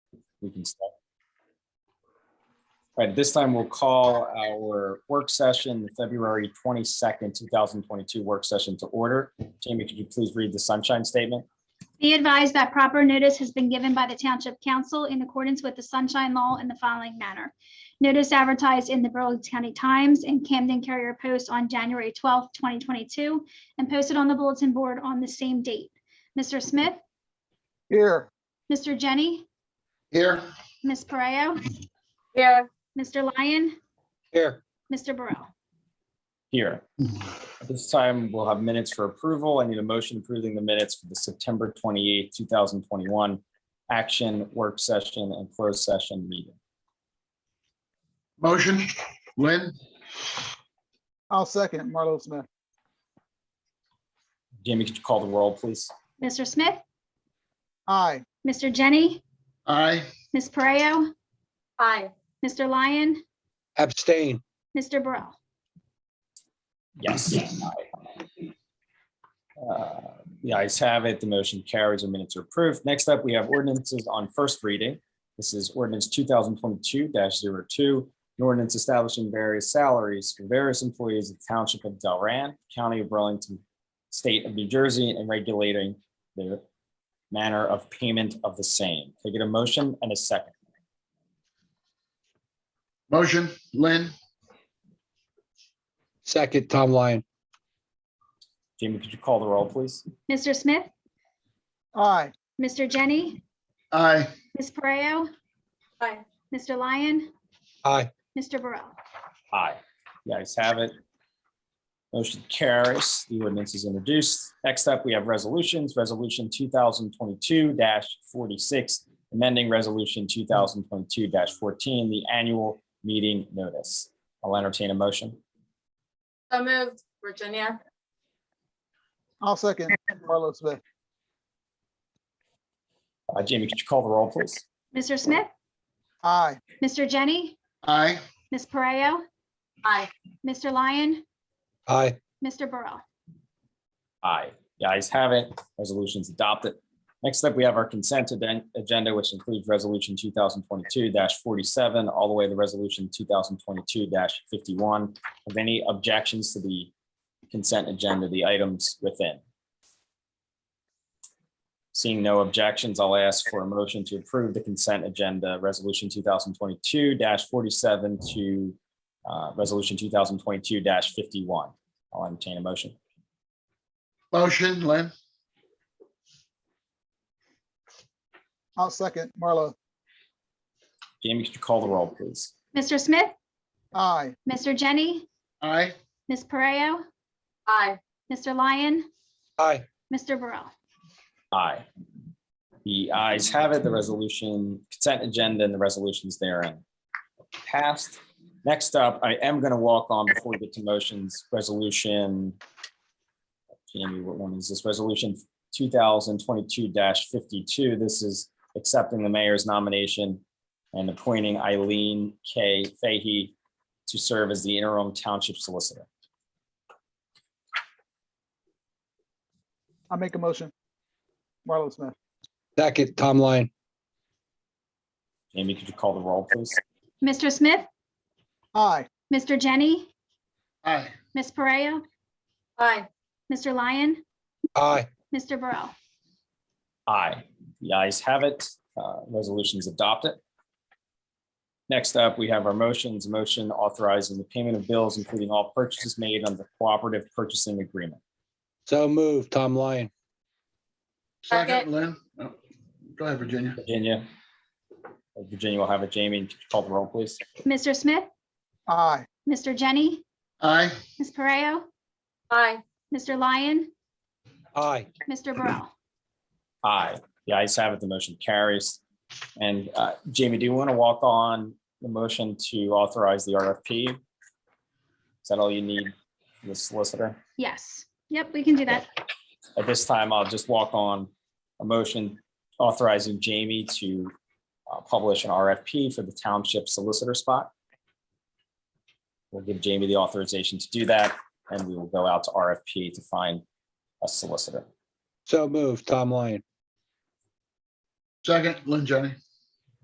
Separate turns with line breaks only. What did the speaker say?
we can start. All right, this time we'll call our work session, the February 22nd, 2022 work session to order. Jamie, could you please read the sunshine statement?
Be advised that proper notice has been given by the Township Council in accordance with the Sunshine Law in the following manner. Notice advertised in the Burlington County Times and Camden Carrier Post on January 12, 2022, and posted on the bulletin board on the same date. Mr. Smith,
Here.
Mr. Jenny,
Here.
Ms. Pareo,
Here,
Mr. Lyon,
Here.
Mr. Burrell.
Here. At this time, we'll have minutes for approval. I need a motion approving the minutes for the September 28th, 2021 action work session and closed session meeting.
Motion, Lynn,
I'll second Marlo Smith.
Jamie, could you call the roll, please?
Mr. Smith,
Aye.
Mr. Jenny,
aye.
Ms. Pareo,
aye.
Mr. Lyon,
Abstain.
Mr. Burrell.
Yes. aye. Uh, The ayes have it. The motion carries and minutes are approved. Next up, we have ordinances on first reading. This is ordinance two thousand twenty-two 2 an ordinance establishing various salaries for various employees of the Township of Delran, County of Burlington, State of New Jersey, and regulating the manner of payment of the same. Can I get a motion and a second?
Motion, Lynn,
Second, Tom Lyon.
Jamie, could you call the roll, please?
Mr. Smith,
Aye.
Mr. Jenny,
aye.
Ms. Pareo,
Aye.
Mr. Lyon,
Aye.
Mr. Burrell.
Aye. The ayes have it. Motion carries. The ordinance is introduced. Next up, we have resolutions. Resolution two thousand twenty-two forty-six, amending resolution two thousand twenty-two fourteen, the annual meeting notice. I'll entertain a motion.
So moved, Virginia.
I'll second Marlo Smith.
Uh, Jamie, could you call the roll, please?
Mr. Smith,
Aye.
Mr. Jenny,
Aye,
Ms. Pareo,
Aye.
Mr. Lyon,
Aye.
Mr. Burrell.
Aye. The ayes have it. Resolution's adopted. Next up, we have our consent aden- agenda, which includes Resolution two thousand twenty-two forty-seven, all the way to Resolution two thousand twenty-two fifty-one. Have any objections to the consent agenda, the items within? Seeing no objections, I'll ask for a motion to approve the consent agenda, Resolution two thousand twenty-two forty-seven to uh, Resolution two thousand twenty-two fifty-one. I'll entertain a motion.
motion, Lynn,
I'll second Marlo.
Jamie, could you call the roll, please?
Mr. Smith,
Aye.
Mr. Jenny,
aye.
Ms. Pareo,
Aye.
Mr. Lyon,
Aye.
Mr. Burrell.
Aye. The ayes have it, the resolution, consent agenda and the resolutions therein passed. Next up, I am going to walk on before we get to motions, resolution. Jamie, what one is this? Resolution two thousand twenty-two fifty-two. This is accepting the mayor's nomination and appointing Eileen K. Fahey to serve as the interim township solicitor.
I make a motion. Marlo Smith.
Second, Tom Lyon.
Jamie, could you call the roll, please?
Mr. Smith,
Aye.
Mr. Jenny,
Aye,
Ms. Pareo,
Aye.
Mr. Lyon,
Aye.
Mr. Burrell.
Aye. The ayes have it. Uh, Resolution is adopted. Next up, we have our motions, motion authorizing the payment of bills, including all purchases made under the cooperative purchasing agreement.
So moved, Tom Lyon.
second,
Second.
Lynn. Oh, Go ahead, Virginia.
Virginia. Uh, Virginia will have it. Jamie, call the roll, please.
Mr. Smith,
Aye.
Mr. Jenny,
Aye,
Ms. Pareo,
Aye.
Mr. Lyon,
Aye.
Mr. Burrell.
Aye. The ayes have it. The motion carries. And uh, Jamie, do you want to walk on the motion to authorize the RFP? Is that all you need, for the solicitor?
Yes. Yep, we can do that.
At this time, I'll just walk on a motion authorizing Jamie to uh, publish an RFP for the township solicitor spot. We'll give Jamie the authorization to do that, and we will go out to RFP to find a solicitor.
So moved, Tom Lyon.
second, Lynn, Jenny.